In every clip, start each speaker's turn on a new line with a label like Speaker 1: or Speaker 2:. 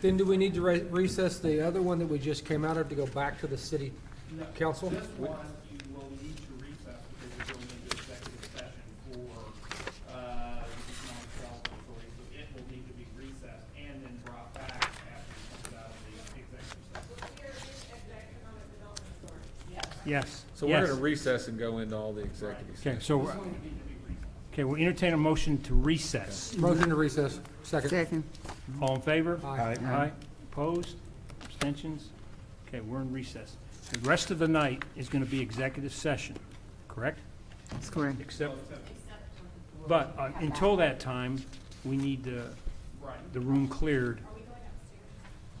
Speaker 1: Then do we need to re- recess the other one that we just came out of to go back to the city
Speaker 2: No,
Speaker 1: council?
Speaker 2: This one, you will need to recess because we're going into executive session for, uh, non-salvatory, so it will need to be recessed and then brought back after it comes out of the executive session.
Speaker 3: Yes.
Speaker 4: So we're
Speaker 3: yes.
Speaker 4: gonna recess and go into all the executives.
Speaker 3: Okay, so, okay, we'll entertain a motion to recess.
Speaker 1: Motion to recess, second.
Speaker 5: Second.
Speaker 3: All in favor?
Speaker 1: Aye.
Speaker 3: Aye. Opposed? Abstentions? Okay, we're in recess. The rest of the night is gonna be executive session, correct?
Speaker 5: That's correct.
Speaker 3: Except, but uh, until that time, we need the, the room cleared.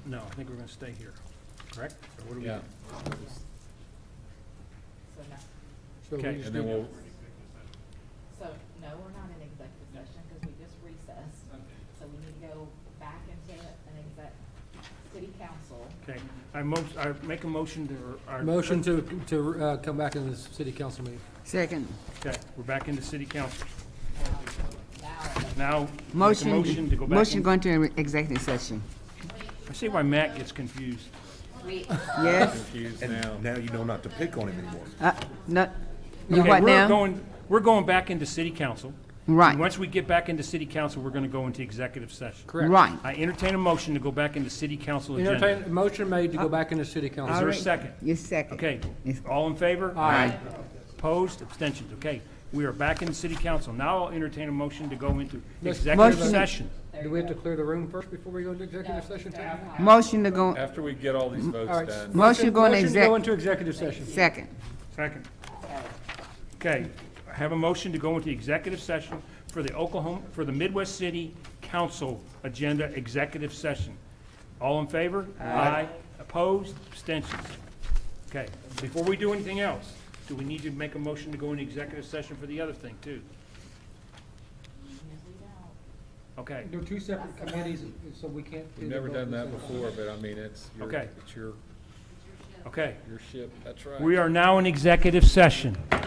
Speaker 3: No, I think we're gonna stay here, correct? Or what do we-
Speaker 4: Yeah,
Speaker 1: So we
Speaker 3: Okay.
Speaker 1: just
Speaker 4: and then
Speaker 1: need-
Speaker 4: we'll,
Speaker 6: So, no, we're not in executive session because we just recessed. So we need to go back into an exec, city council.
Speaker 3: Okay, I mo, I make a motion to, or.
Speaker 1: Motion to, to uh, come back in the city council meeting.
Speaker 5: Second.
Speaker 3: Okay, we're back into city council.
Speaker 6: um, Now,
Speaker 3: Now, make a
Speaker 5: Motion.
Speaker 3: motion to go back
Speaker 5: Motion
Speaker 3: in.
Speaker 5: going to executive session.
Speaker 3: I see why Matt gets confused.
Speaker 6: we,
Speaker 5: Yes.
Speaker 4: confused now.
Speaker 7: And now you know not to pick on him anymore.
Speaker 5: Uh, no, you
Speaker 3: Okay,
Speaker 5: what
Speaker 3: we're
Speaker 5: now?
Speaker 3: going, we're going back into city council. And
Speaker 5: Right,
Speaker 3: Once we get back into city council, we're gonna go into executive session.
Speaker 1: Correct.
Speaker 5: right.
Speaker 3: I entertain a motion to go back into city council agenda.
Speaker 1: Entertain, a motion made
Speaker 5: Uh,
Speaker 1: to go back in the city council.
Speaker 3: Is there a second?
Speaker 5: You second.
Speaker 3: Okay, all in favor?
Speaker 1: Aye.
Speaker 3: Opposed, abstentions, okay. We are back in city council. Now I'll entertain a motion to go into executive
Speaker 5: Motion to-
Speaker 3: session.
Speaker 1: Do we have to clear the room first before we go into executive session?
Speaker 5: Motion to go,
Speaker 4: After we get all these
Speaker 1: All
Speaker 4: votes
Speaker 1: right.
Speaker 4: done,
Speaker 5: Motion to go into
Speaker 1: Motion to go
Speaker 5: exec-
Speaker 1: into executive session.
Speaker 5: second.
Speaker 3: Second. Okay, I have a motion to go into executive session for the Oklahoma, for the Midwest City Council Agenda Executive Session. All in favor? Aye. Opposed? Abstentions? Okay, before we do anything else, do we need to make a motion to go into executive session for the other thing, too? Okay,
Speaker 1: They're two separate committees, so we can't. do them
Speaker 4: we've never
Speaker 1: both
Speaker 4: done
Speaker 1: at
Speaker 4: that
Speaker 1: the same time.
Speaker 4: before, but I mean, it's your,
Speaker 3: Okay.
Speaker 4: it's your,
Speaker 3: okay.
Speaker 4: your ship, that's right.
Speaker 3: We are now in executive session.